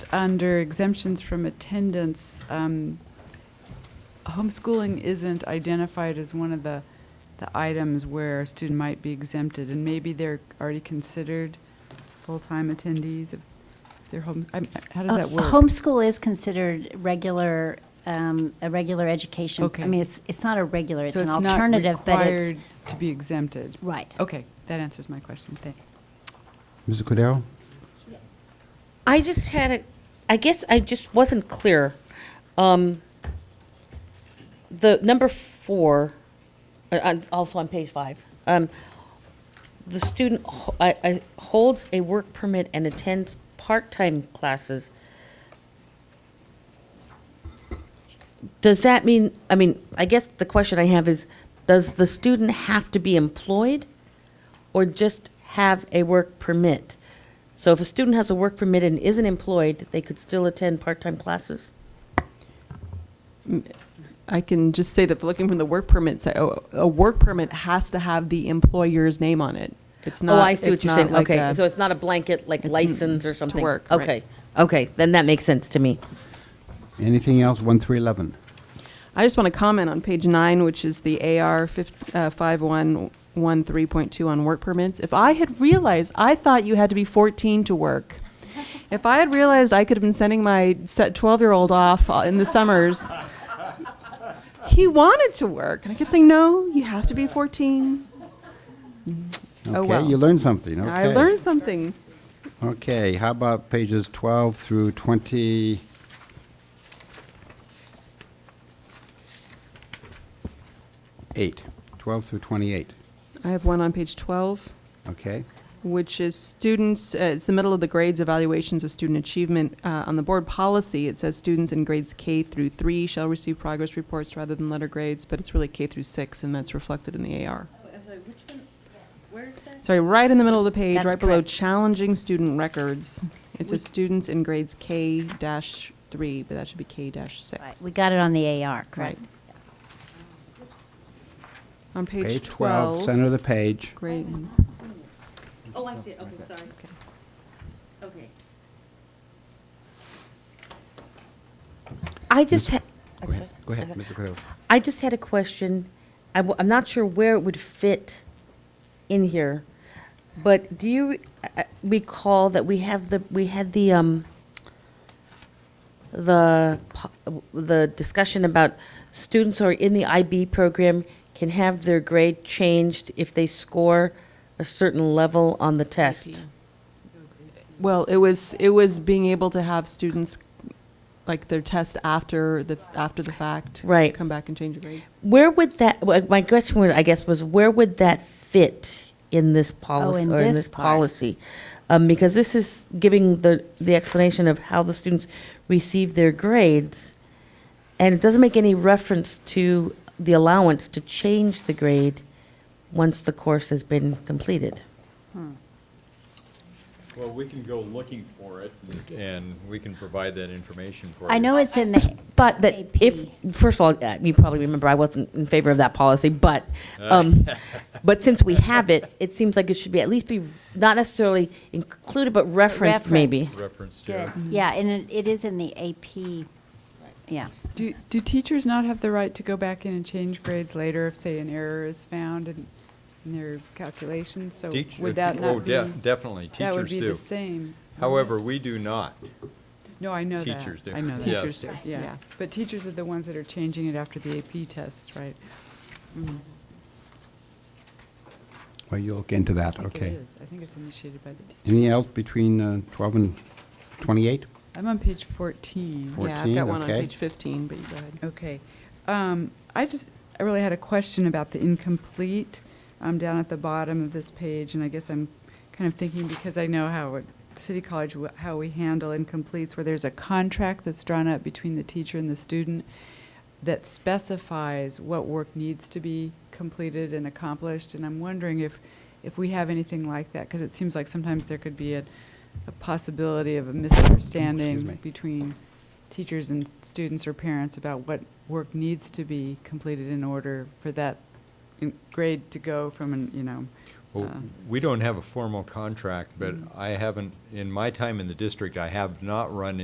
Under exemptions from attendance, um, homeschooling isn't identified as one of the, the items where a student might be exempted, and maybe they're already considered full-time attendees of their home, I'm- how does Uh, that work? Homeschool is considered regular, um, a regular education. Okay. I mean, it's, it's not a regular, it's So an not alternative, but it's, required To be exempted. right. Okay, that answers my question, thank Mrs. Cordero? I just had a, I guess I just wasn't clear. Um, the number four, uh, on- also on page five, um, the student ho- I, I, holds a work permit and attends part-time classes. Does that mean, I mean, I guess the question I have is, does the student have to be employed? or just have a work permit. So if a student has a work permit and isn't employed, they could still attend part-time classes? I can just say that looking from the work permit, side, a, a work permit has to have the employer's name on it. It's not. Oh, I see it's what you're not saying. like Okay, a- so it's not a blanket, like It's license or to something? work, right. Okay, okay, then that makes sense to me. Anything else, 1 through 11? I just want to comment on page nine, which is the AR fif- uh, 5113.2 on work permits. If I had realized, I thought you had to be 14 to work. If I had realized I could have been sending my 12 year old off uh, in the summers, he wanted to work. And I kept saying, no, you have to be 14. Oh, well. Okay, you learned something, okay. I learned something. Okay, how about pages 12 through 20? Eight, 12 through 28, I have one on page 12. okay? which is students, uh, it's the middle of the grades evaluations of student achievement. Uh, On the board policy, it says students in grades K through three shall receive progress reports rather than letter grades, but it's really K through six, and that's reflected in the AR. Sorry, right in the middle of the page, That's right below correct. challenging student records. It says students in grades K dash three, but that should be K dash Right. six. We got it on the AR, correct? Right. On page Page 12, twelve, center of the page. grade, Oh, I see, okay, sorry. Okay. I just had. Go ahead, Go ahead, Mr. Cordero. I just had a question. I w- I'm not sure where it would fit in here, but do you uh, uh, recall that we have the, we had the, um, the, po- the discussion about students who are in the IB program can have their grade changed if they score a certain level on the test? Well, it was it was being able to have students like their test after the after the fact. Right. Come back and change a grade. Where would that, well, my question would, I guess, was where would that fit in this policy, Oh, in or in this this part. policy? Um, because this is giving the, the explanation of how the students receive their grades, and it doesn't make any reference to the allowance to change the grade once the course has been completed. Well, we can go looking for it, and- and we can provide that information for you. I know it's in the, But that if, first of all, uh, you probably remember I wasn't in favor of that policy, but, um, but since we have it, it seems like it should be, at least be, not necessarily included, but referenced maybe. Referenced. Reference to. good, yeah, and it, it is in the AP, yeah. Do, do teachers not have the right to go back in and change grades later if, say, an error is found in, in their calculations? So Teach- would that oh, not be? de- Definitely, That would teachers be the do. same. However, we do not. No, I know that. Teachers do. I know that. Teachers do, Yeah, yeah. but teachers are the ones that are changing it after the AP tests, right? Well, you'll look into that, I think it okay. is. I think it's initiated by the teacher. Anything else between uh, 12 and 28? I'm on page 14. Four- yeah, I've 14, got one okay. on page 15, but you go ahead. Okay. Um, I just, I really had a question about the incomplete um, down at the bottom of this page, and I guess I'm kind of thinking, because I know how at City College, wh- how we handle incompletes, where there's a contract that's drawn up between the teacher and the student that specifies what work needs to be completed and accomplished, and I'm wondering if, if we have anything like that, because it seems like sometimes there could be a, a possibility of a misunderstanding me. between teachers and students or parents about what work needs to be completed in order for that in- grade to go from an, you know, Well, Oh. uh, We don't have a formal contract, but I haven't, in my time in the district, I have not run